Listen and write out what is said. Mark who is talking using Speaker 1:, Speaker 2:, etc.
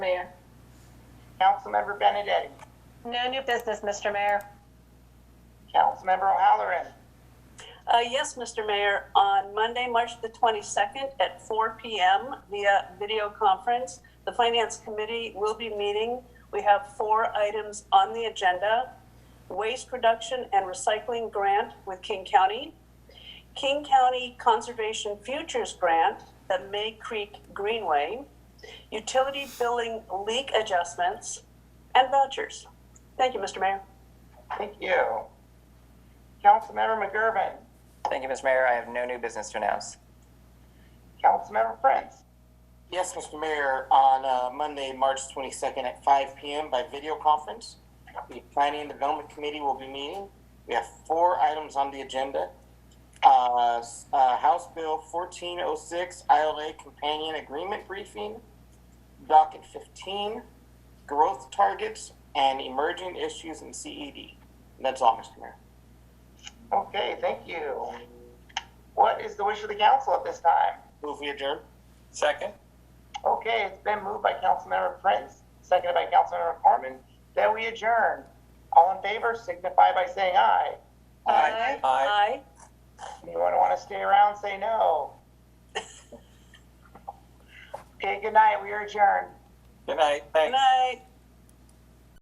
Speaker 1: Councilmember Benedetti.
Speaker 2: No new business, Mr. Mayor.
Speaker 1: Councilmember O'Halloran.
Speaker 3: Uh, yes, Mr. Mayor, on Monday, March the 22nd at 4 p.m. via video conference, the Finance Committee will be meeting. We have four items on the agenda. Waste reduction and recycling grant with King County, King County Conservation Futures Grant, the May Creek Greenway, utility billing leak adjustments, and vouchers. Thank you, Mr. Mayor.
Speaker 1: Thank you. Councilmember McGurven.
Speaker 4: Thank you, Mr. Mayor. I have no new business to announce.
Speaker 1: Councilmember Prince.
Speaker 5: Yes, Mr. Mayor, on uh, Monday, March 22nd at 5 p.m. by video conference, the Planning and Development Committee will be meeting. We have four items on the agenda. Uh, s- uh, House Bill 1406, ILA Companion Agreement Briefing, Docket 15, Growth Targets, and Emerging Issues in CED. And That's all, Mr. Mayor.
Speaker 1: Okay, thank you. What is the wish of the council at this time?
Speaker 5: Move we adjourn.
Speaker 4: Second.
Speaker 1: Okay, it's been moved by Councilmember Prince, seconded by Councilmember Corman, that we adjourn. All in favor signify by saying aye.
Speaker 2: Uh,
Speaker 4: Aye. Aye.
Speaker 3: Aye.
Speaker 1: Anyone want to stay around, say no. Okay, good night, we are adjourned.
Speaker 4: Good night. Thanks.
Speaker 3: Good night.